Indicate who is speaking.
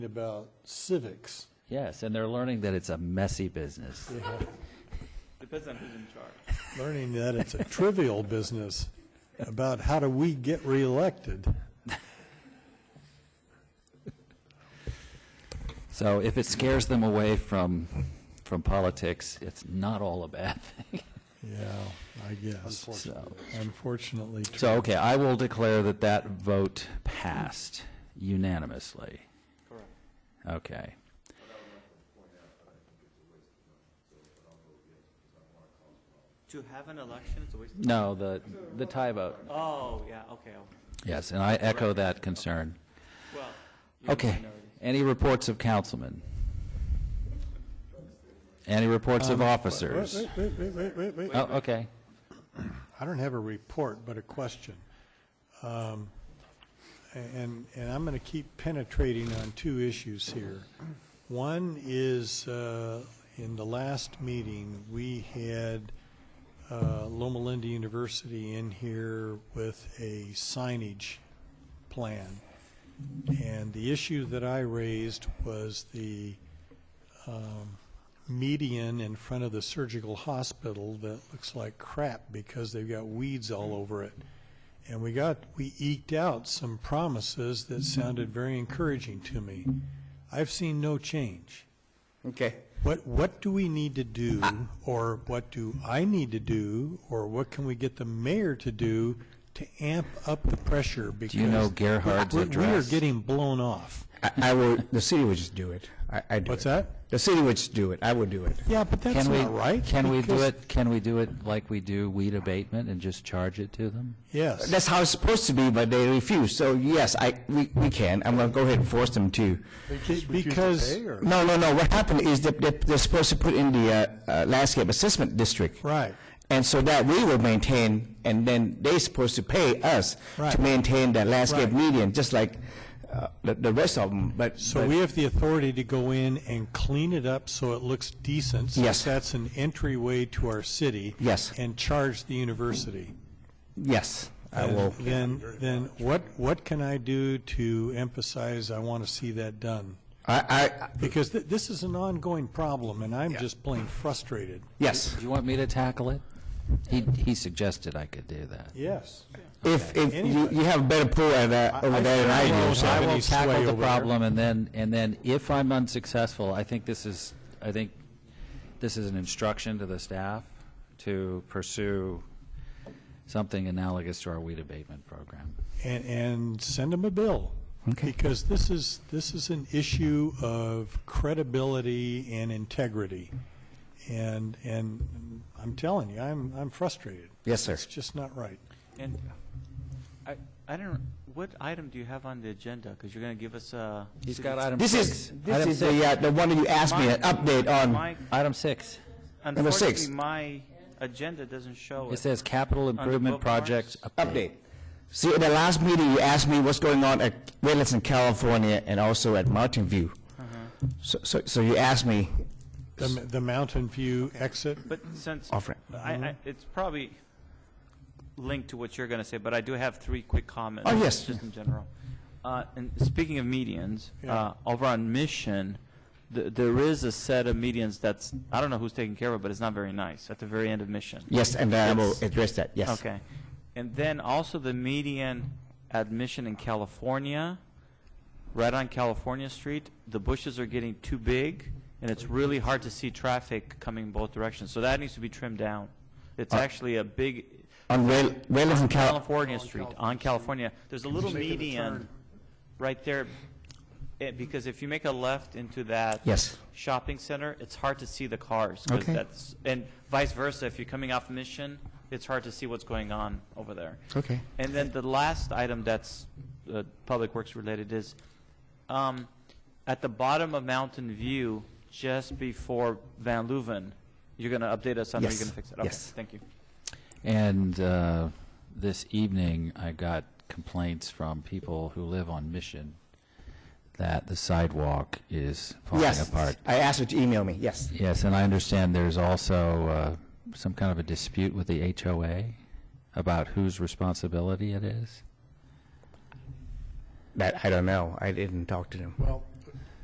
Speaker 1: about civics.
Speaker 2: Yes, and they're learning that it's a messy business.
Speaker 3: Depends on who's in charge.
Speaker 1: learning that it's a trivial business about how do we get reelected.
Speaker 2: So if it scares them away from, from politics, it's not all a bad thing.
Speaker 1: Yeah, I guess.
Speaker 2: So,
Speaker 1: Unfortunately. true.
Speaker 2: so, okay, I will declare that that vote passed unanimously.
Speaker 3: Correct.
Speaker 2: Okay.
Speaker 3: To have an election, it's a waste of
Speaker 2: No, the, the tie vote.
Speaker 3: Oh, yeah, okay. oh,
Speaker 2: Yes, and I echo that concern.
Speaker 3: Well. you're the
Speaker 2: Okay.
Speaker 3: minority.
Speaker 2: Any reports of councilmen? Any reports
Speaker 1: Um,
Speaker 2: of officers?
Speaker 1: Wait, wait, wait, wait, wait, wait.
Speaker 2: Oh, okay.
Speaker 1: I don't have a report, but a question. Um, And, and I'm going to keep penetrating on two issues here. One is, uh, in the last meeting, we had uh, Loma Linda University in here with a signage plan. And the issue that I raised was the median in front of the surgical hospital that looks like crap because they've got weeds all
Speaker 2: Mm-hmm.
Speaker 1: over it. And we got, we eked out some promises that sounded very encouraging to me. I've seen no change.
Speaker 4: Okay.
Speaker 1: What, what do we need to do, or what do I need to do, or what can we get the mayor to do to amp up the pressure? Do
Speaker 2: you know Gerhard's
Speaker 1: We are
Speaker 2: address?
Speaker 1: getting blown off.
Speaker 4: I, I would, the city would just do it. I, I do
Speaker 1: What's
Speaker 4: it.
Speaker 1: that?
Speaker 4: The city would just do it. I would do it.
Speaker 1: Yeah, but that's
Speaker 2: Can we-
Speaker 1: not right.
Speaker 2: Can we do
Speaker 1: because-
Speaker 2: it, can we do it like we do weed abatement and just charge it to them?
Speaker 1: Yes.
Speaker 4: That's how it's supposed to be, but they refuse. So yes, I, we, we can. I'm gonna go ahead and force them to.
Speaker 1: Because,
Speaker 4: No, no, no. What happened is that they're, they're supposed to put in the, uh, uh, landscape assessment district.
Speaker 1: right.
Speaker 4: And so that we will maintain, and then they're supposed to pay us
Speaker 1: Right.
Speaker 4: to maintain that landscape
Speaker 1: Right.
Speaker 4: median, just like, uh, the, the rest of them, but.
Speaker 1: So
Speaker 4: but-
Speaker 1: we have the authority to go in and clean it up so it looks decent? since
Speaker 4: Yes.
Speaker 1: that's an entryway to our city?
Speaker 4: Yes.
Speaker 1: And charge the university?
Speaker 4: Yes, I will.
Speaker 1: Then, then what, what can I do to emphasize I want to see that done?
Speaker 4: I, I,
Speaker 1: Because th- this is an ongoing problem, and I'm just plain frustrated.
Speaker 4: yes.
Speaker 2: Do you want me to tackle it? He, he suggested I could do that.
Speaker 1: Yes.
Speaker 4: If, if you,
Speaker 1: Anyway.
Speaker 4: you have a better pool at, uh, over there than I do,
Speaker 1: won't
Speaker 4: so.
Speaker 1: have
Speaker 2: I
Speaker 1: any
Speaker 2: will
Speaker 1: sway
Speaker 2: tackle the
Speaker 1: over there.
Speaker 2: problem, and then, and then if I'm unsuccessful, I think this is, I think this is an instruction to the staff to pursue something analogous to our weed abatement program.
Speaker 1: and, and send them a bill. Because this is, this is an issue of credibility and integrity. And, and I'm telling you, I'm, I'm frustrated.
Speaker 4: Yes, sir.
Speaker 1: It's just not right.
Speaker 3: And I, I don't, what item do you have on the agenda? Because you're going to give us uh, a.
Speaker 2: He's got item
Speaker 4: This is,
Speaker 2: six.
Speaker 4: this is the, uh, the one that you asked me, an update on,
Speaker 3: My,
Speaker 2: Item six.
Speaker 3: unfortunately,
Speaker 4: six.
Speaker 3: my agenda doesn't show it.
Speaker 2: It says capital improvement projects update.
Speaker 4: update. See, at the last meeting, you asked me what's going on at Redlands in California and also at Mountain View. So, so, so you asked me,
Speaker 1: The, the Mountain View exit,
Speaker 3: But since,
Speaker 4: Offer it.
Speaker 3: I, I, it's probably linked to what you're going to say, but I do have three quick comments.
Speaker 4: Oh, yes.
Speaker 3: Just in general. Uh, and speaking of medians, uh, over on Mission, th- there is a set of medians that's, I don't know who's taking care of it, but it's not very nice, at the very end of Mission.
Speaker 4: yes, and I will
Speaker 3: Yes.
Speaker 4: address that, yes.
Speaker 3: Okay. And then also the median admission in California, right on California Street, the bushes are getting too big, and it's really hard to see traffic coming both directions. So that needs to be trimmed down. It's actually a big,
Speaker 4: On Red- Redlands in Cal,
Speaker 3: California Street, on California, there's a little median right there, eh, because if you make a left into that
Speaker 4: Yes.
Speaker 3: shopping center, it's hard to see the cars. 'cause
Speaker 4: Okay.
Speaker 3: that's- And vice versa, if you're coming off Mission, it's hard to see what's going on over there.
Speaker 4: Okay.
Speaker 3: And then the last item that's uh, Public Works related is, um, at the bottom of Mountain View, just before Van Louven, you're going to update us on how you're
Speaker 4: Yes.
Speaker 3: going to fix it? Okay,
Speaker 4: Yes.
Speaker 3: Thank you.
Speaker 2: And uh, this evening, I got complaints from people who live on Mission that the sidewalk is falling
Speaker 4: yes,
Speaker 2: apart.
Speaker 4: I asked you to email me, yes.
Speaker 2: Yes, and I understand there's also uh, some kind of a dispute with the HOA about whose responsibility it is.
Speaker 4: That, I don't know, I didn't talk to them.
Speaker 1: well,